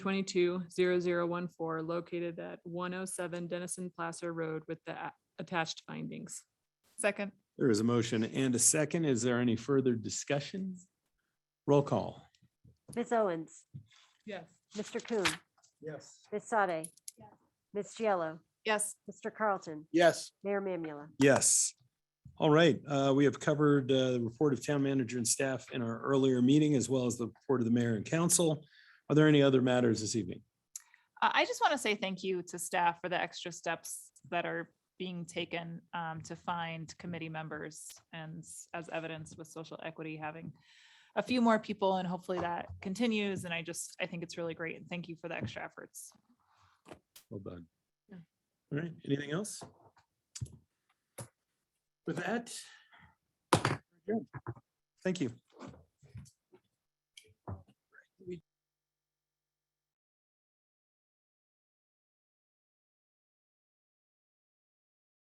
twenty-two zero zero one four located at one oh seven Dennison Placer Road with the a- attached findings. Second, There is a motion and a second. Is there any further discussion? Roll call. Ms. Owens, Yes. Mr. Coon, Yes. Ms. Sade, Ms. Giello, yes, Mr. Carlton, Yes. Mayor Mamula. Yes. All right, uh, we have covered uh, the report of town manager and staff in our earlier meeting, as well as the report of the mayor and council. Are there any other matters this evening? I, I just want to say thank you to staff for the extra steps that are being taken um, to find committee members. And s- as evidence with social equity, having a few more people and hopefully that continues. And I just, I think it's really great and thank you for the extra efforts. Well done. Yeah. All right, anything else? With that. Thank you.